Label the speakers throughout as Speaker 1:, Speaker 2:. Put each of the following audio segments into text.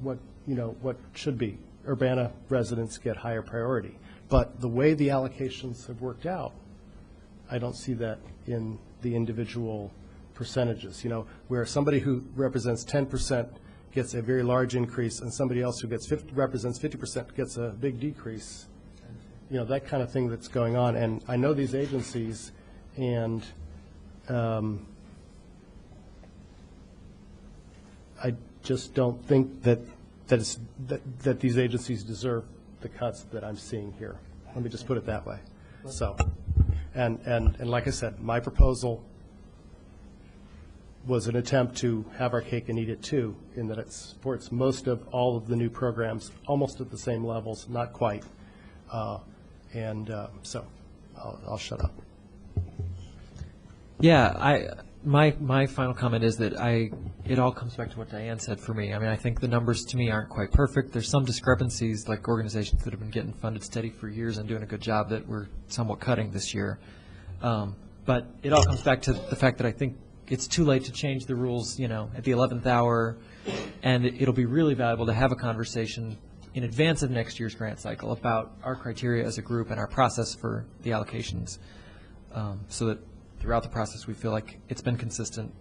Speaker 1: what, you know, what should be. Urbana residents get higher priority. But the way the allocations have worked out, I don't see that in the individual percentages, you know, where somebody who represents ten percent gets a very large increase, and somebody else who gets fifty, represents fifty percent gets a big decrease. You know, that kind of thing that's going on, and I know these agencies, and, um, I just don't think that, that it's, that, that these agencies deserve the cuts that I'm seeing here. Let me just put it that way. So, and, and, and like I said, my proposal was an attempt to have our cake and eat it too, in that it supports most of all of the new programs, almost at the same levels, not quite. Uh, And uh, so, I'll, I'll shut up.
Speaker 2: Yeah, I, my, my final comment is that I, it all comes back to what Diane said for me. I mean, I think the numbers to me aren't quite perfect. There's some discrepancies, like organizations that have been getting funded steady for years and doing a good job that we're somewhat cutting this year. Um, But it all comes back to the fact that I think it's too late to change the rules, you know, at the 11th hour, and it- it'll be really valuable to have a conversation in advance of next year's grant cycle about our criteria as a group and our process for the allocations um, so that throughout the process, we feel like it's been consistent.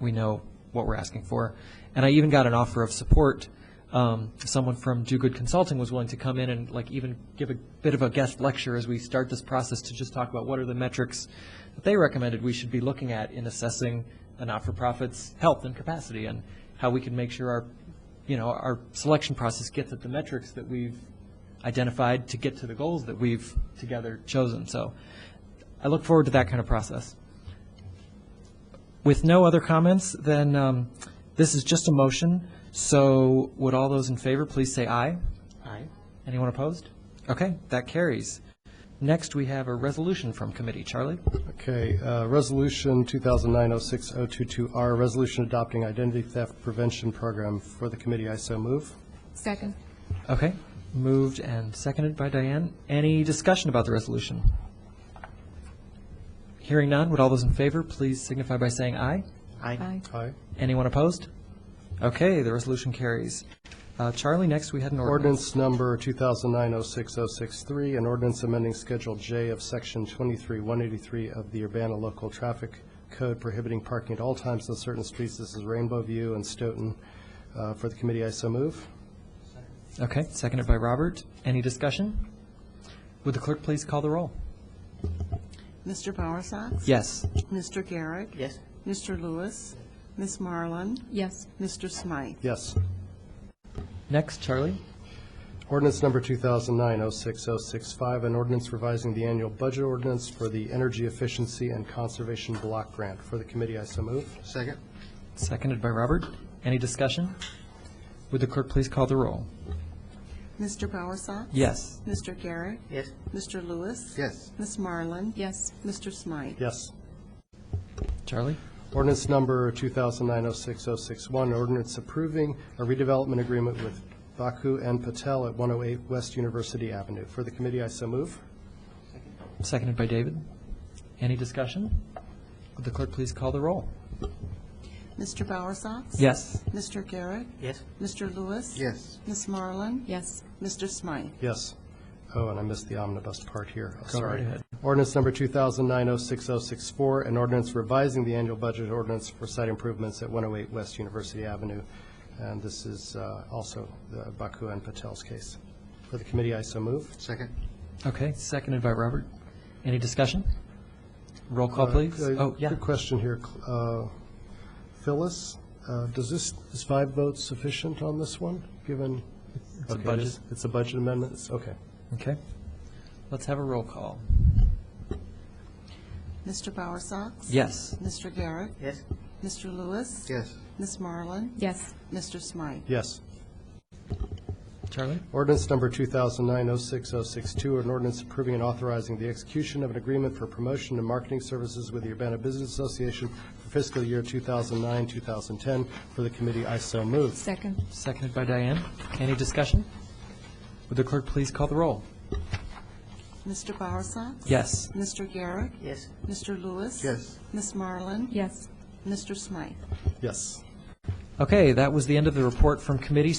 Speaker 2: We know what we're asking for. And I even got an offer of support. Um, Someone from Do Good Consulting was willing to come in and like even give a bit of a guest lecture as we start this process to just talk about what are the metrics that they recommended we should be looking at in assessing a not-for-profit's health and capacity and how we can make sure our, you know, our selection process gets at the metrics that we've identified to get to the goals that we've together chosen. So I look forward to that kind of process. With no other comments, then um, this is just a motion. So would all those in favor please say aye? Aye. Anyone opposed? Okay, that carries. Next, we have a resolution from committee. Charlie?
Speaker 1: Okay, uh, Resolution 2009-06-022R, Resolution Adopting Identity Theft Prevention Program for the committee, I so move.
Speaker 3: Second.
Speaker 2: Okay, moved and seconded by Diane. Any discussion about the resolution? Hearing none, would all those in favor please signify by saying aye?
Speaker 3: Aye.
Speaker 1: Aye.
Speaker 2: Anyone opposed? Okay, the resolution carries. Uh, Charlie, next we had an ordinance.
Speaker 1: Ordinance number 2009-06-063, an ordinance amending Schedule J of Section 23-183 of the Urbana Local Traffic Code prohibiting parking at all times on certain streets. This is Rainbow View and Stoughton. Uh, For the committee, I so move.
Speaker 2: Okay, seconded by Robert. Any discussion? Would the clerk please call the roll?
Speaker 4: Mr. Bowersox?
Speaker 2: Yes.
Speaker 4: Mr. Garrick? Yes. Mr. Lewis? Miss Marlin?
Speaker 3: Yes.
Speaker 4: Mr. Smythe?
Speaker 1: Yes.
Speaker 2: Next, Charlie?
Speaker 1: Ordinance number 2009-06065, an ordinance revising the annual budget ordinance for the Energy Efficiency and Conservation Block Grant. For the committee, I so move.
Speaker 5: Second?
Speaker 2: Seconded by Robert. Any discussion? Would the clerk please call the roll?
Speaker 4: Mr. Bowersox?
Speaker 2: Yes.
Speaker 4: Mr. Garrick? Yes. Mr. Lewis?
Speaker 5: Yes.
Speaker 4: Miss Marlin?
Speaker 3: Yes.
Speaker 4: Mr. Smythe?
Speaker 1: Yes.
Speaker 2: Charlie?
Speaker 1: Ordinance number 2009-06061, ordinance approving a redevelopment agreement with Baku and Patel at 108 West University Avenue. For the committee, I so move.
Speaker 2: Seconded by David. Any discussion? Would the clerk please call the roll?
Speaker 4: Mr. Bowersox?
Speaker 2: Yes.
Speaker 4: Mr. Garrick? Yes. Mr. Lewis?
Speaker 5: Yes.
Speaker 4: Miss Marlin?
Speaker 3: Yes.
Speaker 4: Mr. Smythe?
Speaker 1: Yes. Oh, and I missed the omnibus part here. Oh,
Speaker 2: Go right
Speaker 1: Sorry.
Speaker 2: ahead.
Speaker 1: Ordinance number 2009-06064, an ordinance revising the annual budget ordinance for site improvements at 108 West University Avenue. And this is uh, also the Baku and Patel's case. For the committee, I so move.
Speaker 5: Second?
Speaker 2: Okay, seconded by Robert. Any discussion? Roll call, please.
Speaker 1: Uh,
Speaker 2: Oh, yeah.
Speaker 1: Quick question here. Cl- uh, Phyllis, uh, does this, is five votes sufficient on this one, given?
Speaker 2: a
Speaker 1: Okay, it
Speaker 2: budget.
Speaker 1: is- It's a budget amendment, It's- okay.
Speaker 2: Okay. Let's have a roll call.
Speaker 4: Mr. Bowersox?
Speaker 2: Yes.
Speaker 4: Mr. Garrick? Yes. Mr. Lewis?
Speaker 5: Yes.
Speaker 4: Miss Marlin?
Speaker 3: Yes.
Speaker 4: Mr. Smythe?
Speaker 1: Yes.
Speaker 2: Charlie?
Speaker 1: Ordinance number 2009-06062, an ordinance approving and authorizing the execution of an agreement for promotion and marketing services with the Urbana Business Association for fiscal year 2009-2010. For the committee, I so move.
Speaker 3: Second.
Speaker 2: Seconded by Diane. Any discussion? Would the clerk please call the roll?
Speaker 4: Mr. Bowersox?
Speaker 2: Yes.
Speaker 4: Mr. Garrick? Yes. Mr. Lewis?
Speaker 5: Yes.
Speaker 4: Miss Marlin?
Speaker 3: Yes.
Speaker 4: Mr. Smythe?
Speaker 1: Yes.
Speaker 2: Okay, that was the end of the report from committee,